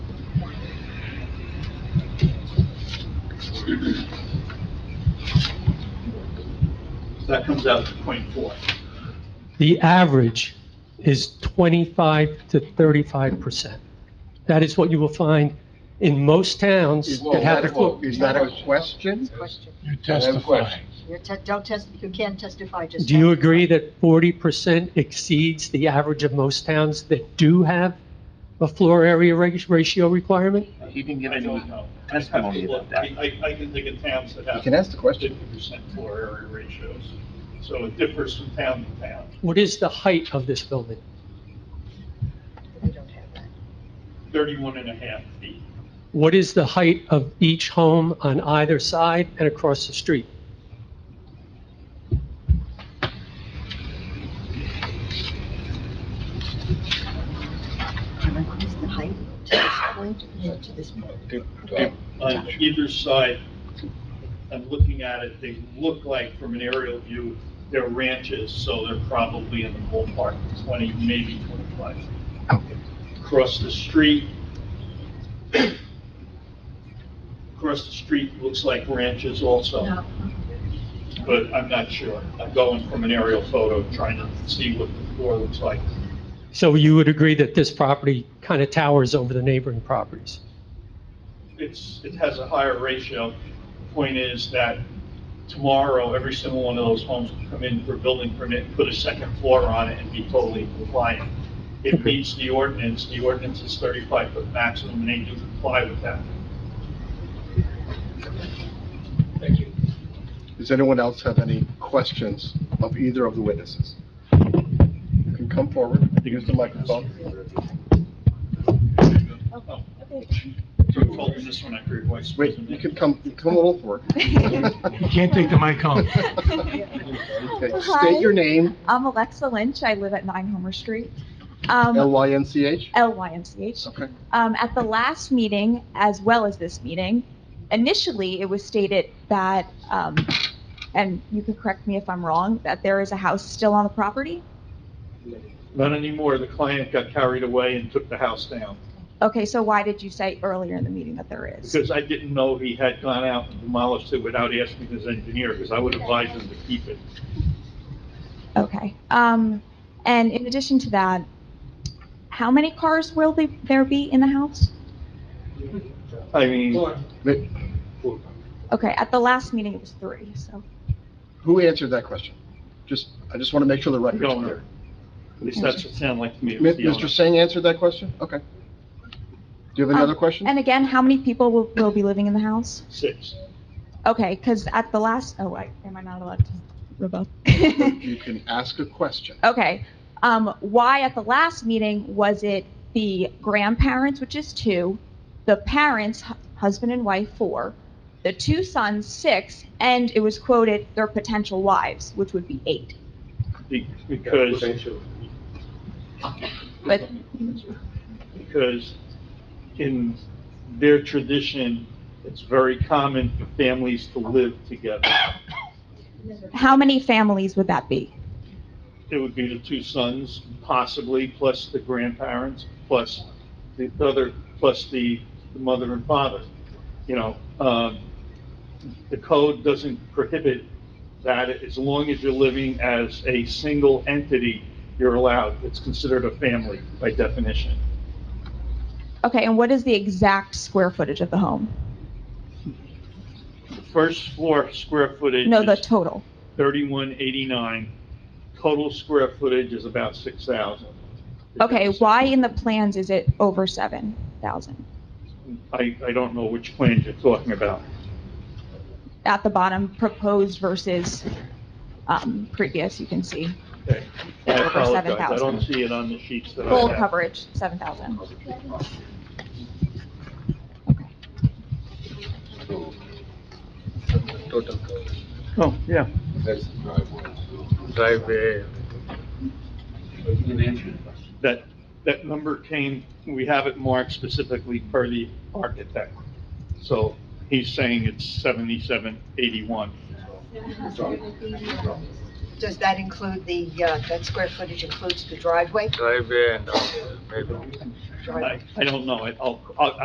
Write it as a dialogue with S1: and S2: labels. S1: So That comes out to 0.4.
S2: The average is 25 to 35%. That is what you will find in most towns
S3: Is
S2: that have the
S3: that-
S2: floor.
S3: is that a question?
S4: Question.
S5: You're
S3: testifying.
S4: You're te- Don't test, you can't testify, just.
S2: Do you
S4: testify.
S2: agree that 40% exceeds the average of most towns that do have a floor area reg- ratio requirement?
S3: He didn't give
S1: I don't
S3: any,
S1: know. I'd have
S3: testimony
S1: to look.
S3: about
S1: I,
S3: that.
S1: I- I can think of towns that
S3: You
S1: have
S3: can ask the question.
S1: fifty percent floor area ratios. So it differs from town to town.
S2: What is the height of this building?
S4: We don't have that.
S1: Thirty-one and a half feet.
S2: What is the height of each home on either side and across the street?
S4: Can I increase the height to this point, Yeah, to this point?
S1: On either side, I'm looking at it, they look like from an aerial view, they're ranches, so they're probably in the ballpark of twenty, maybe twenty-five. Across the street, across the street looks like ranches also.
S4: No.
S1: but I'm not sure. I'm going from an aerial photo, trying to see what the floor looks like.
S2: So you would agree that this property kind of towers over the neighboring properties?
S1: It's, it has a higher ratio. Point is that tomorrow, every single one of those homes will come in for building permit, put a second floor on it, and be totally compliant. It meets the ordinance. The ordinance is 35 foot maximum, and they do comply with that.
S3: Does anyone else have any questions of either of the witnesses? You can come forward, use the microphone.
S1: Oh. So I told them this one, I heard your voice.
S3: Wait, you can come, come a little forward.
S5: You can't take the mic home.
S3: Okay, State your name,
S6: I'm Alexa Lynch. I live at 9 Homer Street. Um,
S3: L-Y-N-C-H.
S6: L-Y-N-C-H.
S3: Okay.
S6: Um, at the last meeting, as well as this meeting, initially it was stated that, um, and you can correct me if I'm wrong, that there is a house still on the property.
S1: Not anymore. The client got carried away and took the house down.
S6: Okay, so why did you say earlier in the meeting that there is?
S1: Because I didn't know he had gone out and demolished it without asking his engineer, because I would advise him to keep it.
S6: Okay. Um, and in addition to that, how many cars will they- there be in the house?
S1: I mean,
S3: Wait,
S6: Okay, at the last meeting it was three, so.
S3: Who answered that question? Just, I just want to make sure the
S1: the
S3: record's
S1: owner.
S3: clear.
S1: At least that's what it sounded like to me. it
S3: Mi-
S1: was the owner.
S3: Mr. Singh answered that question? Okay. Do you have another
S6: Um,
S3: question?
S6: And again, how many people will, will be living in the house?
S1: Six.
S6: Okay, because at the last, oh, wait, am I not allowed to rebut?
S3: You can ask a question.
S6: okay, um, why at the last meeting was it the grandparents, which is two, the parents, hu- husband and wife, four, the two sons, six, and it was quoted their potential wives, which would be eight.
S1: Be- Because,
S6: But
S1: because in their tradition, it's very common for families to live together.
S6: how many families would that be?
S1: It would be the two sons, possibly, plus the grandparents, plus the other, plus the the mother and father. You know, um, the code doesn't prohibit that as long as you're living as a single entity, you're allowed. It's considered a family by definition.
S6: Okay, and what is the exact square footage of the home?
S1: The first floor square footage
S6: No, the
S1: is
S6: total.
S1: 3189. Total square footage is about 6,000.
S6: Okay, why in the plans is it over 7,000?
S1: I, I don't know which plans you're talking about.
S6: At the bottom, proposed versus um, previous, you can see
S1: Okay. I
S6: Over
S1: apologize. I
S6: 7,000.
S1: don't see it on the sheets that
S6: full
S1: I have.
S6: coverage, 7,000.
S7: total
S1: Oh, yeah.
S7: that's the driveway. Driveway. You didn't answer the question.
S1: That, that number came, we have it marked specifically per the architect. So he's saying it's 7781.
S4: Does that include the, uh, that square footage includes the driveway?
S7: Driveway and, uh, maybe.
S1: I I don't know. I- I'll, I'll-